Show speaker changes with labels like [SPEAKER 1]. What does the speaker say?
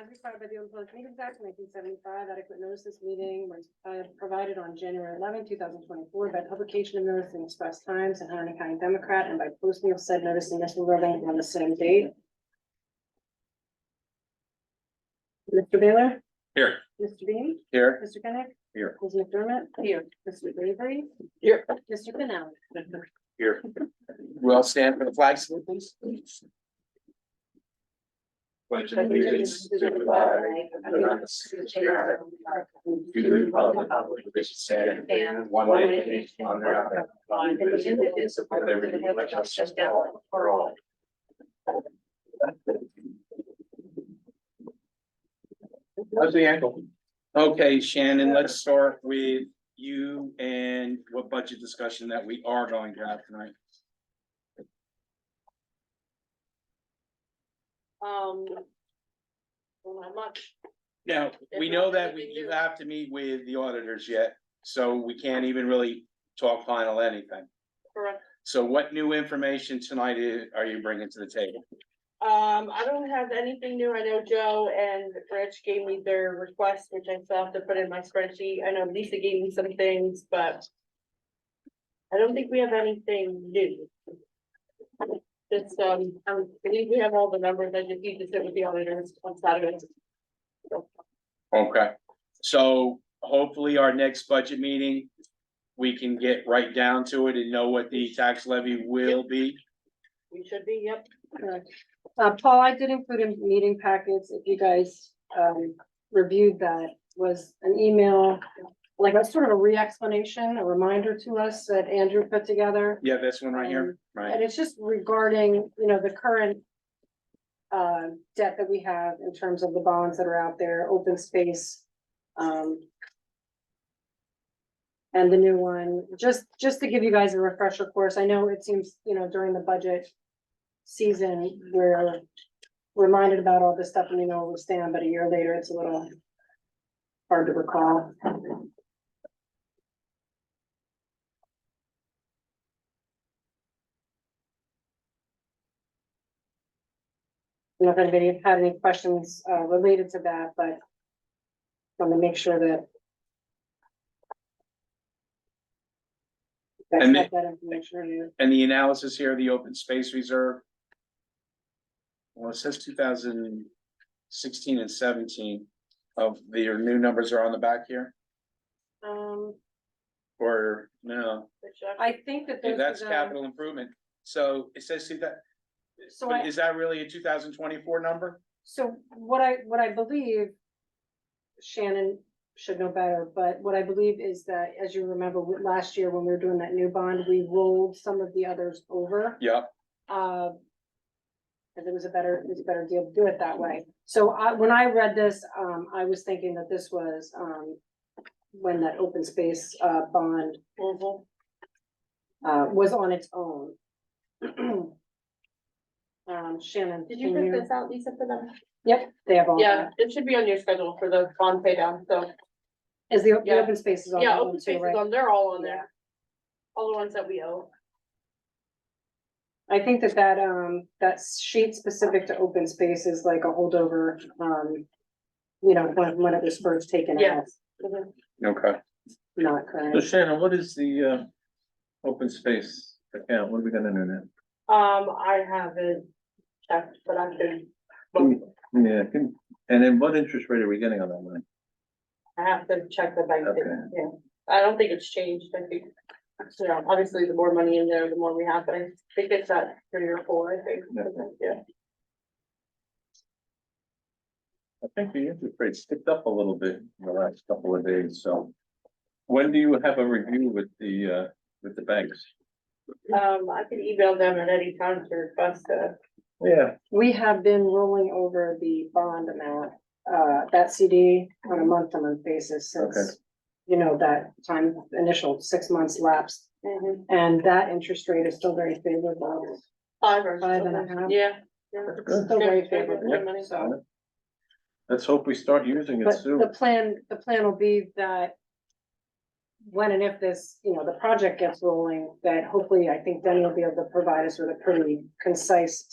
[SPEAKER 1] as required by the Open Public Meetings Act nineteen seventy-five, adequate notice of this meeting was uh, provided on January eleventh, two thousand twenty-four by publication of notice in Express Times and Hunter County Democrat and by posting of said notice in National Building on the same date. Mr. Baylor?
[SPEAKER 2] Here.
[SPEAKER 1] Mr. Bean?
[SPEAKER 2] Here.
[SPEAKER 1] Mr. Kenick?
[SPEAKER 2] Here.
[SPEAKER 1] Ms. McDermott? Here. Mr. Bravery?
[SPEAKER 2] Here.
[SPEAKER 1] Mr. Canal?
[SPEAKER 2] Here. We all stand for the flag salute, please. Pledge allegiance to the flag of the United States of America, to the republic for which it stands, one nation, under God, indivisible, with liberty and justice for all. How's the ankle?
[SPEAKER 3] Okay, Shannon, let's start with you and what budget discussion that we are going to have tonight.
[SPEAKER 1] Um. Well, not much.
[SPEAKER 3] Now, we know that we, you have to meet with the auditors yet, so we can't even really talk final anything.
[SPEAKER 1] Correct.
[SPEAKER 3] So what new information tonight i- are you bringing to the table?
[SPEAKER 1] Um, I don't have anything new. I know Joe and Rich gave me their requests, which I still have to put in my spreadsheet. I know Lisa gave me some things, but. I don't think we have anything new. Just, um, I believe we have all the numbers. I just need to sit with the auditors on Saturday.
[SPEAKER 3] Okay, so hopefully our next budget meeting, we can get right down to it and know what the tax levy will be.
[SPEAKER 1] We should be, yep.
[SPEAKER 4] Correct. Uh, Paul, I did include in meeting packets, if you guys, um, reviewed that, was an email. Like a sort of a re-explanation, a reminder to us that Andrew put together.
[SPEAKER 3] Yeah, this one right here,
[SPEAKER 4] Um,
[SPEAKER 3] right?
[SPEAKER 4] And it's just regarding, you know, the current. Uh, debt that we have in terms of the bonds that are out there, open space, um. And the new one, just, just to give you guys a refresher course, I know it seems, you know, during the budget. Season, we're reminded about all this stuff and we know where we stand, but a year later, it's a little. Hard to recall. I don't know if anybody had any questions uh related to that, but. Want to make sure that. That's
[SPEAKER 3] And the-
[SPEAKER 4] not that information on you.
[SPEAKER 3] And the analysis here, the open space reserve. Well, it says two thousand sixteen and seventeen of the, your new numbers are on the back here,
[SPEAKER 4] Um,
[SPEAKER 3] or no,
[SPEAKER 4] I think that those. are
[SPEAKER 3] that's
[SPEAKER 4] the-
[SPEAKER 3] capital improvement. So it says see that,
[SPEAKER 4] So
[SPEAKER 3] but
[SPEAKER 4] I,
[SPEAKER 3] is that really a two thousand twenty-four number?
[SPEAKER 4] so what I, what I believe. Shannon should know better, but what I believe is that, as you remember, w- last year when we were doing that new bond, we rolled some of the others over.
[SPEAKER 3] Yep,
[SPEAKER 4] Uh. Cause it was a better, it was a better deal to do it that way. So I, when I read this, um, I was thinking that this was, um. When that open space, uh, bond, uh, was on its own. Um, Shannon.
[SPEAKER 1] Did you
[SPEAKER 4] can
[SPEAKER 1] print this out, Lisa, for them?
[SPEAKER 4] They have all
[SPEAKER 1] Yeah,
[SPEAKER 4] that.
[SPEAKER 1] it should be on your schedule for the bond pay down, so,
[SPEAKER 4] Is the, the
[SPEAKER 1] Yeah.
[SPEAKER 4] open space is on
[SPEAKER 1] yeah,
[SPEAKER 4] that
[SPEAKER 1] open
[SPEAKER 4] one too,
[SPEAKER 1] spaces
[SPEAKER 4] right?
[SPEAKER 1] on, they're all on
[SPEAKER 4] Yeah.
[SPEAKER 1] there. All the ones that we owe.
[SPEAKER 4] I think that that, um, that sheet specific to open space is like a holdover, um. You know, when, when it was first taken out,
[SPEAKER 1] Yes. Mhm.
[SPEAKER 3] okay.
[SPEAKER 4] not
[SPEAKER 2] So
[SPEAKER 4] current.
[SPEAKER 2] Shannon, what is the uh open space account? What are we gonna do now?
[SPEAKER 1] Um, I haven't checked, but I can,
[SPEAKER 2] Yeah, can- and then what interest rate are we getting on that money?
[SPEAKER 1] I have to check the bank,
[SPEAKER 2] Okay.
[SPEAKER 1] yeah, I don't think it's changed, I think. You know, obviously, the more money in there, the more we have, but I think it's at three or four, I think,
[SPEAKER 2] Okay.
[SPEAKER 1] yeah,
[SPEAKER 2] I think the interest rate ticked up a little bit in the last couple of days, so. When do you have a review with the uh with the banks?
[SPEAKER 1] um, I could email them at any time to request a.
[SPEAKER 2] Yeah.
[SPEAKER 4] We have been rolling over the bond amount, uh, that CD on a month-to-month basis
[SPEAKER 2] Okay.
[SPEAKER 4] since. You know, that time, initial six months lapsed,
[SPEAKER 1] Mm-hmm.
[SPEAKER 4] and that interest rate is still very favorable.
[SPEAKER 1] Five or
[SPEAKER 4] Five and a
[SPEAKER 1] something.
[SPEAKER 4] half.
[SPEAKER 1] Yeah. yeah.
[SPEAKER 2] That's good.
[SPEAKER 4] Still very
[SPEAKER 1] Yeah, yeah,
[SPEAKER 4] favorable.
[SPEAKER 1] yeah, money, so.
[SPEAKER 2] Let's hope we start using it
[SPEAKER 4] But the
[SPEAKER 2] soon.
[SPEAKER 4] plan, the plan will be that. When and if this, you know, the project gets rolling, that hopefully, I think Denny will be able to provide us with a pretty concise